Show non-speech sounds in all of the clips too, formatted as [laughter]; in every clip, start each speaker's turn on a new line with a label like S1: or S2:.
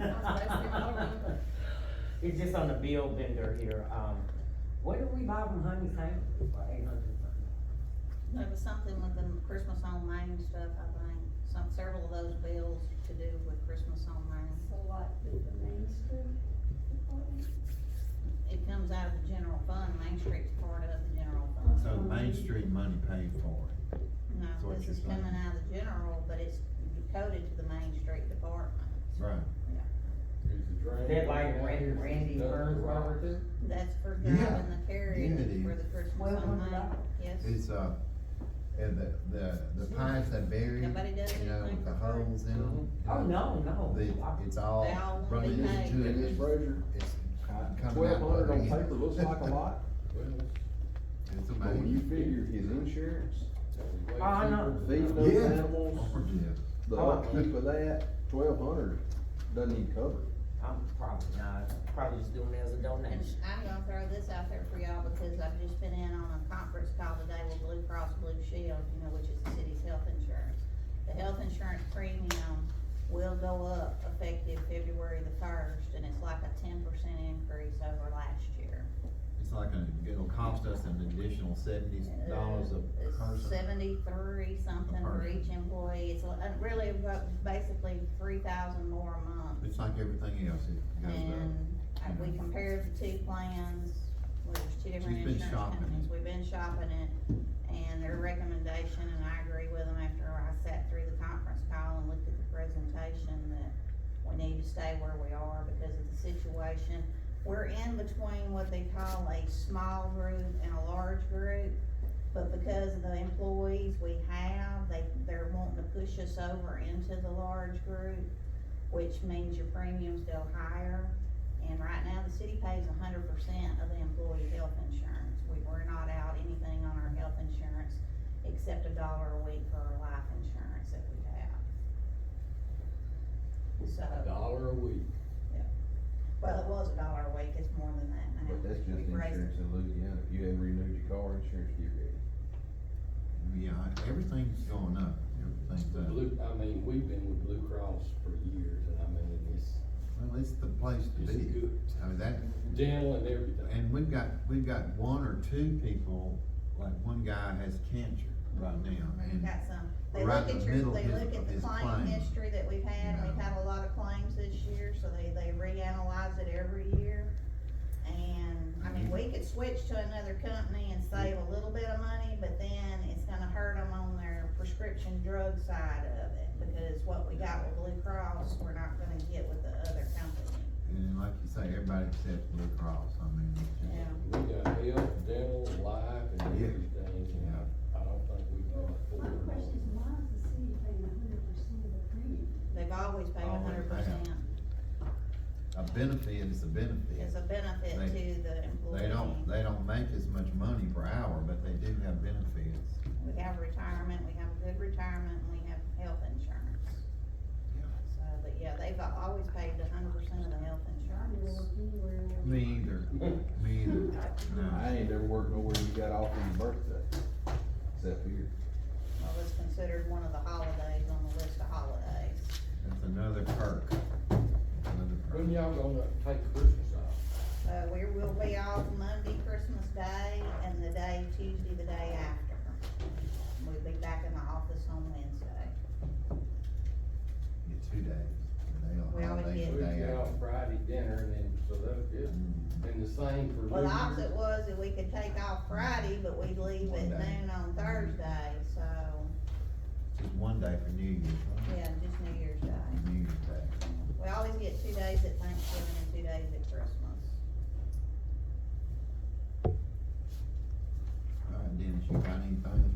S1: [laughs] It's just on the bill vendor here, um, what did we buy from Honey Saint for eight hundred something?
S2: There was something with the Christmas on Main stuff, I think, some, several of those bills to do with Christmas on Main.
S3: So like with the Main Street department?
S2: It comes out of the general fund, Main Street's part of the general fund.
S4: So Main Street money paid for it, That's
S2: No,
S4: what
S2: this is
S4: you're saying.
S2: coming out of the general, but it's coded to the Main Street department.
S4: right?
S1: That like Randy, Randy Burns Robert too?
S2: That's for
S4: Yeah,
S2: driving the carriage
S4: yeah, it is.
S2: for the Christmas
S1: Well,
S2: on
S1: what
S2: Main,
S1: about-
S2: yes.
S4: It's, uh, and the, the, the pipes that bury, you
S2: Nobody does
S4: know,
S2: anything
S4: with the
S2: for free.
S4: holes in them.
S1: Oh, no,
S4: They,
S1: no, I-
S4: it's all
S2: They all want
S4: running
S2: to be
S4: into it,
S5: And this
S4: it's
S5: Brazier,
S4: coming out.
S5: twelve hundred
S4: the
S5: on
S4: end.
S5: paper looks like a lot,
S4: [laughs] It's
S5: but when you
S4: amazing.
S5: figure his insurance,
S1: Oh, I know.
S5: feeding those
S4: Yeah.
S5: animals,
S4: Or did.
S5: the
S1: Oh.
S5: upkeep of that, twelve hundred doesn't even cover it.
S1: I'm probably not, probably just doing it as a
S2: And
S1: donation.
S2: I'm gonna throw this out there for y'all because I've just been in on a conference call today with Blue Cross Blue Shield, you know, which is the city's health insurance. The health insurance premium will go up effective February the first, and it's like a ten percent increase over last year.
S4: It's like a, it'll cost us an additional seventy dollars a
S2: It's
S4: person.
S2: Seventy-three something
S4: A
S2: for
S4: person.
S2: each employee, it's uh, really about basically three thousand more a month.
S4: It's like everything else, it goes up.
S2: And uh, we compared the two plans, well, there's two different
S4: She's been
S2: insurance
S4: shopping it.
S2: companies, we've been shopping it, and their recommendation, and I agree with them after I sat through the conference call and looked at the presentation, that we need to stay where we are because of the situation. We're in between what they call a small group and a large group, but because of the employees we have, they, they're wanting to push us over into the large group which means your premiums go higher. And right now, the city pays hundred percent of the employee health insurance. We, we're not out anything on our health insurance except a dollar a week for our life insurance that we have. So,
S6: Dollar a week.
S2: well, it was a dollar a week, it's more than that now.
S5: But that's just
S2: We've raised it.
S5: insurance in Louisiana, if you haven't renewed your car insurance, get ready.
S4: Yeah, everything's going up, everything's
S6: The
S4: up.
S6: Blue, I mean, we've been with Blue Cross for years, and I mean, it's,
S4: Well, it's the place to
S6: it's
S4: be.
S6: good.
S4: I mean, that,
S6: Dental and everything.
S4: and we've got, we've got one or two people, like one guy has cancer right now,
S2: We've
S4: and
S2: got some, they
S4: right
S2: look
S4: in
S2: at
S4: the
S2: your,
S4: middle
S2: they
S4: of his-
S2: look
S4: of
S2: at the
S4: his
S2: claim
S4: claim.
S2: history that we've had, and we've
S4: Yeah.
S2: had a lot of claims this year, so they, they reanalyze it every year. And, I mean, we could switch to another company and save a little bit of money, but then it's gonna hurt them on their prescription drug side of it. Because what we got with Blue Cross, we're not gonna get with the other company.
S4: and like you say, everybody except Blue Cross, I mean, it's just-
S6: We got health, dental, life, and
S4: Yeah.
S6: everything, and I, I don't think we can
S3: My
S6: afford it.
S3: question is, why is the city paying hundred percent of the premium?
S2: They've always paid
S4: Always
S2: hundred percent
S4: a benefit is a benefit.
S2: as a benefit
S4: They-
S2: to the employee.
S4: They don't, they don't make as much money per hour, but they do have benefits.
S2: We have retirement, we have good retirement, and we have health insurance.
S4: Yeah.
S2: So, but yeah, they've always paid a hundred percent of the health
S3: I don't
S2: insurance.
S3: work anywhere else.
S4: Me either, me either,
S2: [laughs]
S4: no.
S5: I ain't never worked nowhere you got off on your birthday, except here.
S2: Well, it's considered one of the holidays on the list of holidays.
S4: That's another perk, another perk.
S6: When y'all gonna take Christmas off?
S2: Uh, we will be off Monday, Christmas Day, and the day, Tuesday, the day after. We'll be back in the office on Wednesday.
S4: Yeah, two days. and they
S2: We
S4: on
S2: always
S4: holiday
S2: get-
S4: the
S6: We
S4: day
S6: get
S4: after.
S6: out Friday dinner, and then, so that's good,
S4: Mm.
S6: and the same for
S2: Well,
S6: New
S2: the opposite
S6: Year's.
S2: was that we could take off Friday, but we'd leave at
S4: One day.
S2: noon on Thursday, so,
S4: Just one day for New Year's, right?
S2: yeah, just New Year's Day.
S4: New Year's Day.
S2: We always get two days at Thanksgiving and two days at Christmas.
S4: All right, Dennis, Uh, you got anything?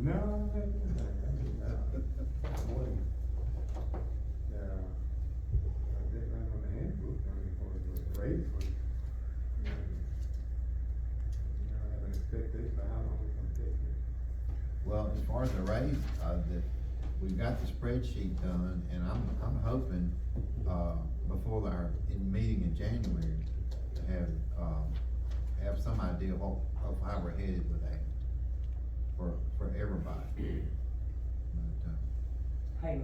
S7: No, I think, yeah, I did not on the handbook, I mean, for the race, but, you know, you know, I have an expectation of how long it's gonna take.
S4: Well, as far as the raise, uh, the, we've got the spreadsheet done, and I'm, I'm hoping, uh, before our, in meeting in January, to have, um, have some idea of, of how we're headed with that for, for everybody. uh,